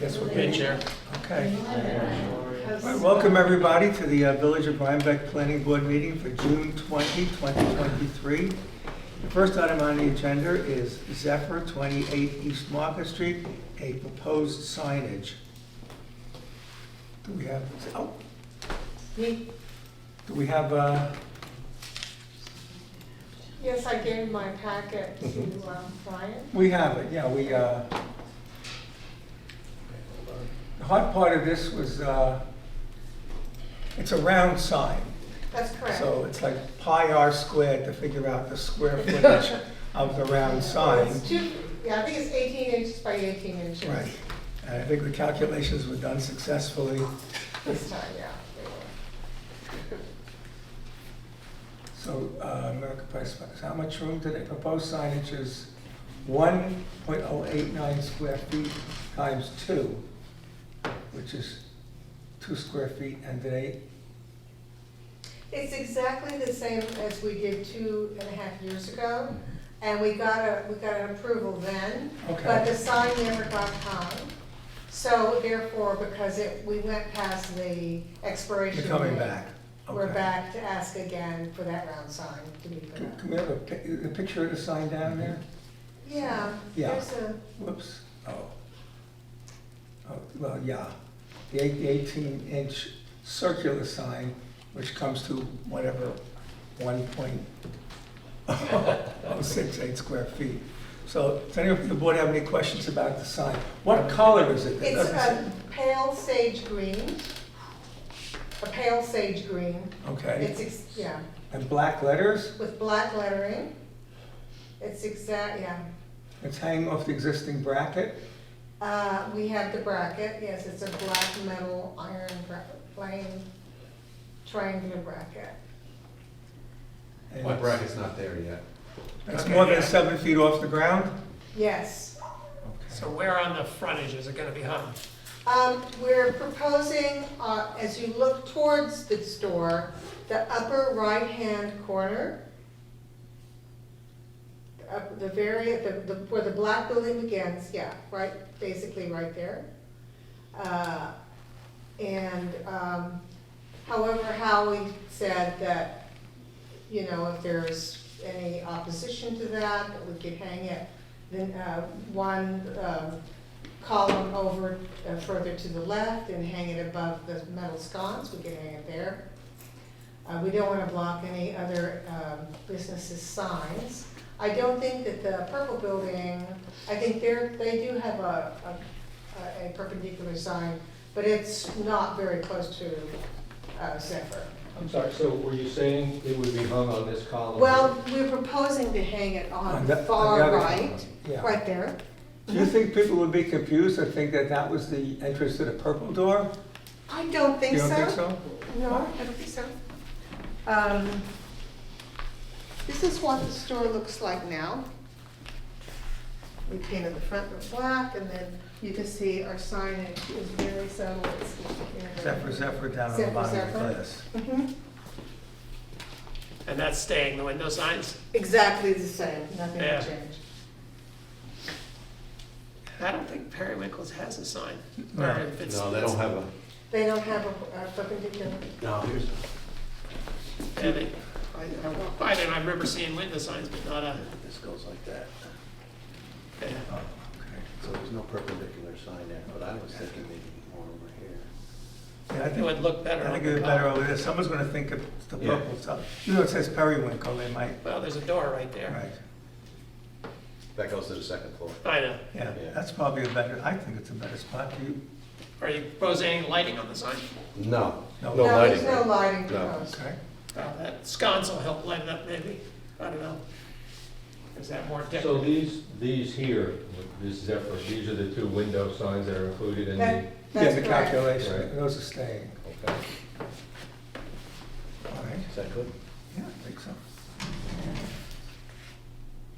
Yes, we Hey, can. Chair. Okay. All right, Welcome, everybody, to the uh, Village of Rhinebeck Planning Board meeting for June 20, 2023. The first item on the agenda is Zephyr 28 East Market Street, a proposed signage. Do we have, oh, Me? do we have, uh, Yes, I gave my packet to Mm-hmm. um, Brian. we have it, yeah, we, uh, the hard part of this was, uh, it's a round sign. That's correct. So it's like pi r squared to figure out the square footage of the round sign. It's two, yeah, I think it's 18 inches by 18 inches. Right. And I think the calculations were done successfully. This time, yeah. they were. So uh, American Price, Partners, how much room do they propose signage is 1.089 square feet times two, which is two square feet, and they, It's exactly the same as we did two and a half years ago, and we got a, we got an approval then, but okay, the sign never got hung. So therefore, because it, we went past the expiration. you're coming date, back. We're Okay. back to ask again for that round sign to be put Can up. can we have a pic- a picture of the sign down there? Yeah, Yeah. there's a. Whoops, oh. Oh, well, yeah, the eight- the eighteen inch circular sign, which comes to whatever, one point oh six eight square feet. So, does anyone from the board have any questions about the sign? What color is it? It It's uh, doesn't a say- pale sage green, a pale sage green. Okay, It's, ex- yeah, and black letters, with black lettering. It's exact, yeah. it's hanging off the existing bracket, Uh, We have the bracket, yes, it's a black metal iron bra- plain triangular bracket. and My it's- bracket's not there yet. It's Okay, more than yeah. seven feet off the ground? Yes. So where on the frontage is it gonna be hung? Um, We're proposing, uh, as you look towards the store, the upper right-hand corner, up the very, the, the- where the black building begins, yeah, right, basically right there. Uh, And um, however, Howie said that, you know, if there's any opposition to that, that we could hang it, then uh, one um, column over uh, further to the left and hang it above the metal sconce, we can hang it there. Uh, we don't wanna block any other, um, businesses' signs. I don't think that the purple building, I think they're, they do have a, a, a perpendicular sign, but it's not very close to, uh, Zephyr. I'm sorry, so were you saying it would be hung on this column? Well, we're proposing to hang it on On the the- on the far other- right, Yeah. right there. Do you think people would be confused or think that that was the entrance to the purple door? I don't think You so. don't think so? No, I don't think so. Um, This is what the store looks like now. We painted the front with black, and then you can see our signage is very subtle. It's like- Zephyr, Zephyr down on the Zephyr, bottom of the Zephyr. class. Mhm. And that's staying, the window signs? Exactly the same, nothing Yeah. changed. I don't think Periwinkles has a sign. No. Or if it's- No, they don't have a, They don't have a a perpendicular. no, here's, Yeah, they- I I walked by there and I remember seeing window signs, but not a, this goes like that. yeah. Oh, okay. So there's no perpendicular sign there, but I was thinking maybe more over here. Yeah, I it think, would look better I on think it'd the be better column. over there. Someone's gonna think of the Yeah. purple stuff. You know, it says periwinkle, they might, Well, there's a door right there. right, That goes to the second floor. I know. yeah, Yeah. that's probably a better, I think it's a better spot. Do you, Are you proposing any lighting on the sign? No, no No. lighting. there's no right? lighting No. proposed. okay? Well, Uh, that sconce will help light it up maybe. I don't know. Is that more So decorative? these, these here, this Zephyr, these are the two window signs that are included in the, That- Yeah, That's the correct. calculation, Right. those are staying, Okay, all right? is that good?